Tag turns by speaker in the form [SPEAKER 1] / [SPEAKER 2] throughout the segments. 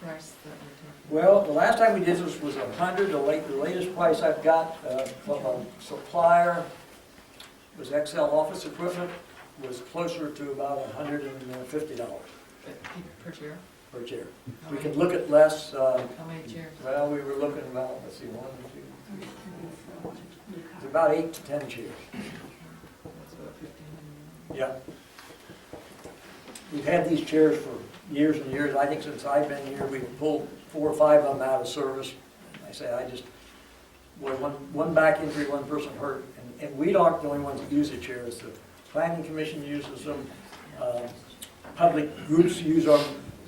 [SPEAKER 1] price that we're
[SPEAKER 2] Well, the last time we did this was a hundred, the late, the latest price I've got, uh, from a supplier was XL Office Equipment, was closer to about a hundred and fifty dollars
[SPEAKER 1] talking, per chair?
[SPEAKER 2] per chair.
[SPEAKER 1] How
[SPEAKER 2] We
[SPEAKER 1] many-
[SPEAKER 2] can look at less, uh,
[SPEAKER 1] How many chairs?
[SPEAKER 2] well, we were looking about, let's see, one, two, it's about eight to ten chairs.
[SPEAKER 1] That's about 1,500.
[SPEAKER 2] Yeah. We've had these chairs for years and years. I think since I've been here, we've pulled four or five of them out of service. And I say, I just, boy, one, one back injury, one person hurt. And, and we aren't the only ones that use the chairs. The planning commission uses them. Uh, Public groups use our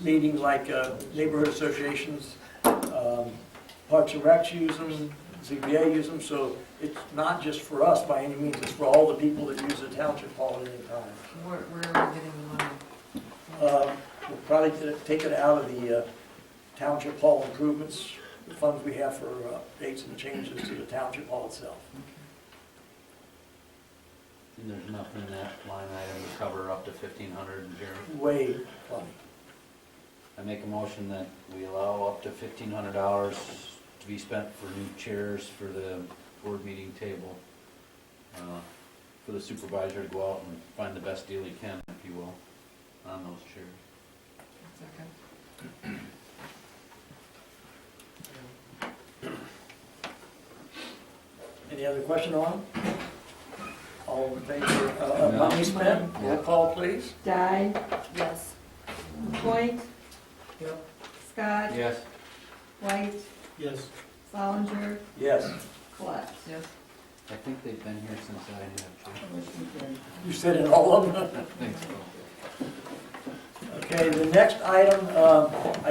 [SPEAKER 2] meetings like uh, neighborhood associations. Um, Parks and Recs use them, ZBA use them. So it's not just for us by any means. It's for all the people that use the township hall at any time.
[SPEAKER 1] Where, where are we getting the money?
[SPEAKER 2] Uh, We'll probably t- take it out of the uh, township hall improvements, the funds we have for uh, updates and changes to the township hall itself.
[SPEAKER 3] And there's nothing in that line item to cover up to fifteen hundred in here.
[SPEAKER 2] Way plenty.
[SPEAKER 3] I make a motion that we allow up to fifteen hundred dollars to be spent for new chairs for the board meeting table. uh, For the supervisor to go out and find the best deal he can, if you will, on those chairs.
[SPEAKER 1] Second.
[SPEAKER 2] Any other question on? it? All in favor uh, of money spent? Roll call, please.
[SPEAKER 4] Dye,
[SPEAKER 1] Yes.
[SPEAKER 4] Point,
[SPEAKER 2] Yep.
[SPEAKER 4] Scott,
[SPEAKER 3] Yes.
[SPEAKER 4] White,
[SPEAKER 2] Yes.
[SPEAKER 4] Solinger,
[SPEAKER 2] Yes.
[SPEAKER 4] Collette.
[SPEAKER 1] Yes.
[SPEAKER 3] I think they've been here since I have.
[SPEAKER 2] You said it all of them.
[SPEAKER 3] I think so.
[SPEAKER 2] Okay, the next item, um, I,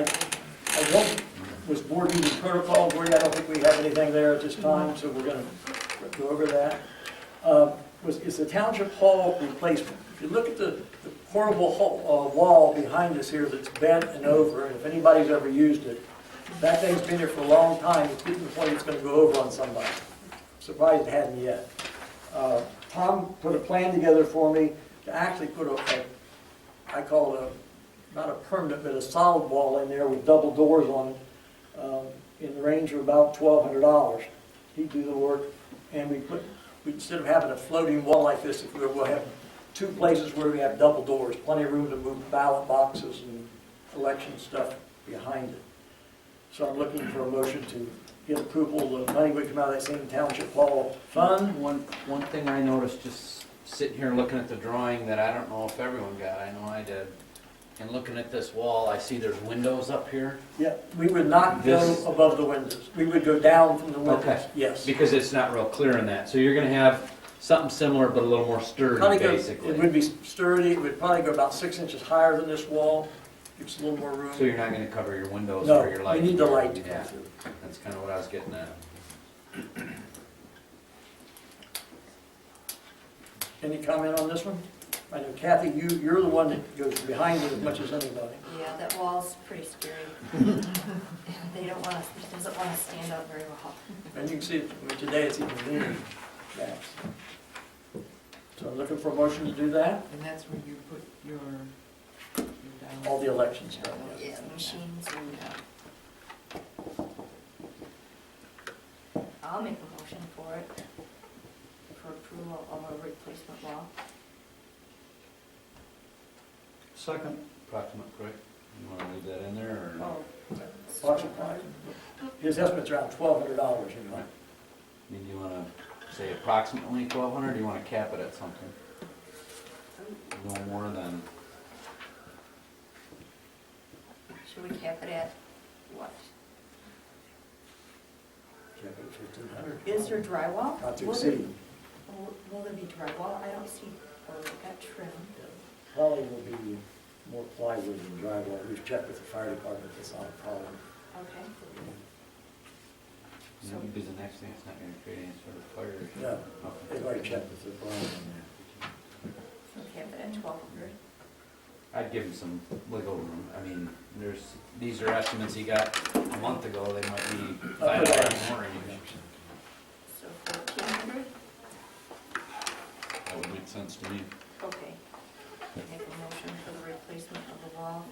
[SPEAKER 2] I don't, was board meeting protocol, Gordy, I don't think we have anything there at this time, so we're gonna go over that. Uh, Was, is the township hall replacement, if you look at the the horrible hall, uh, wall behind us here that's bent and over, and if anybody's ever used it, that thing's been here for a long time, it's getting to the point it's gonna go over on somebody. Surprised it hadn't yet. Uh, Tom put a plan together for me to actually put a, a- I call it a, not a permanent, but a solid wall in there with double doors on it, um, in the range of about twelve hundred dollars. He'd do the work, and we put, we- instead of having a floating wall like this, if we we'll have two places where we have double doors, plenty of room to move ballot boxes and election stuff behind it. So I'm looking for a motion to get approval, the money would come out of that same township hall fund,
[SPEAKER 3] One, one thing I noticed, just sitting here looking at the drawing that I don't know if everyone got, I know I did. And looking at this wall, I see there's windows up here.
[SPEAKER 2] Yeah, we would not go
[SPEAKER 3] This-
[SPEAKER 2] above the windows. We would go down from the windows,
[SPEAKER 3] Okay.
[SPEAKER 2] yes.
[SPEAKER 3] Because it's not real clear in that, so you're gonna have something similar but a little more
[SPEAKER 2] Probably
[SPEAKER 3] sturdy,
[SPEAKER 2] go- It would
[SPEAKER 3] basically.
[SPEAKER 2] be sturdy, it would probably go about six inches higher than this wall, gives a little more room.
[SPEAKER 3] So you're not gonna cover your windows or your
[SPEAKER 2] No, we
[SPEAKER 3] light.
[SPEAKER 2] need the light to come
[SPEAKER 3] Yeah,
[SPEAKER 2] through.
[SPEAKER 3] that's kinda what I was getting at.
[SPEAKER 2] Any comment on this one? I know Kathy, you, you're the one that goes behind it as much as anybody.
[SPEAKER 5] Yeah, that wall's pretty scary. They don't want us, it doesn't want to stand up very well.
[SPEAKER 2] And you can see, it I mean, today it's even leaner back. So I'm looking for a motion to do that,
[SPEAKER 1] And that's where you put your, your dollars.
[SPEAKER 2] all the election stuff.
[SPEAKER 5] Yeah, the machines and. I'll make a motion for it, for approval of a replacement wall.
[SPEAKER 2] Second.
[SPEAKER 3] Approximate, correct? You wanna leave that in there or not?
[SPEAKER 5] Oh.
[SPEAKER 2] His estimate's around twelve hundred dollars, you know.
[SPEAKER 3] I mean, do you wanna say approximately twelve hundred, or do you wanna cap it at something? No more than,
[SPEAKER 5] Should we cap it at what?
[SPEAKER 2] Check it, 1,500.
[SPEAKER 5] Is there drywall?
[SPEAKER 2] Not to
[SPEAKER 5] Will there-
[SPEAKER 2] exceed.
[SPEAKER 5] Will will there be drywall? I don't see, or we got trim.
[SPEAKER 2] Probably will be more plywood than drywall. We've checked with the fire department, that's not a problem.
[SPEAKER 5] Okay.
[SPEAKER 3] you know, because the next thing, it's not gonna create any sort of fire. issue.
[SPEAKER 2] No.
[SPEAKER 3] Okay.
[SPEAKER 2] They've already checked with the fire on
[SPEAKER 5] So cap it at twelve hundred.
[SPEAKER 3] I'd give him some wiggle room. I mean, there's, these are estimates he got a month ago, they might be five dollars more. even.
[SPEAKER 5] So fourteen hundred?
[SPEAKER 3] That would make sense to me.
[SPEAKER 5] Okay. Make a motion for the replacement of the wall